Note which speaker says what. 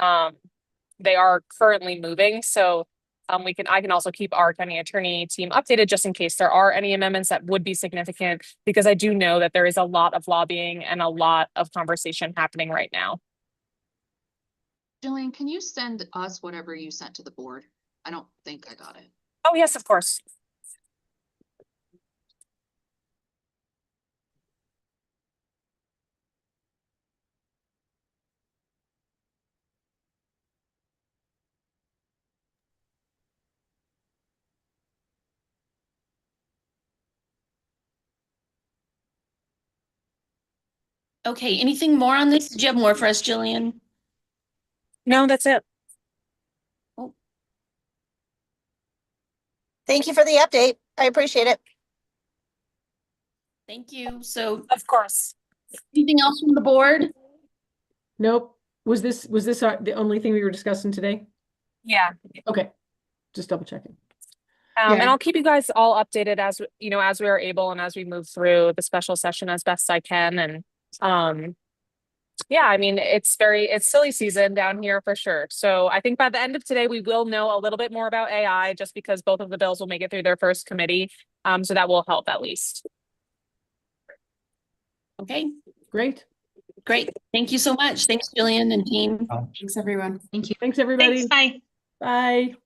Speaker 1: Um, they are currently moving, so um, we can, I can also keep our county attorney team updated just in case there are any amendments that would be significant. Because I do know that there is a lot of lobbying and a lot of conversation happening right now.
Speaker 2: Jillian, can you send us whatever you sent to the board? I don't think I got it.
Speaker 1: Oh, yes, of course.
Speaker 3: Okay, anything more on this? Did you have more for us, Jillian?
Speaker 1: No, that's it.
Speaker 4: Thank you for the update. I appreciate it.
Speaker 3: Thank you. So
Speaker 1: Of course.
Speaker 3: anything else from the board?
Speaker 5: Nope. Was this, was this our- the only thing we were discussing today?
Speaker 1: Yeah.
Speaker 5: Okay, just double checking.
Speaker 1: Um, and
Speaker 5: Yeah.
Speaker 1: I'll keep you guys all updated as, w- you know, as we are able and as we move through the special session as best I can and, um, yeah, I mean, it's very, it's silly season down here for sure. So I think by the end of today, we will know a little bit more about AI just because both of the bills will make it through their first committee. Um, so that will help at least.
Speaker 3: Okay,
Speaker 5: Great.
Speaker 3: great. Thank you so much. Thanks, Jillian and team.
Speaker 6: Thanks, everyone. Thank you.
Speaker 5: Thanks, everybody.
Speaker 7: Thanks, bye.
Speaker 5: Bye.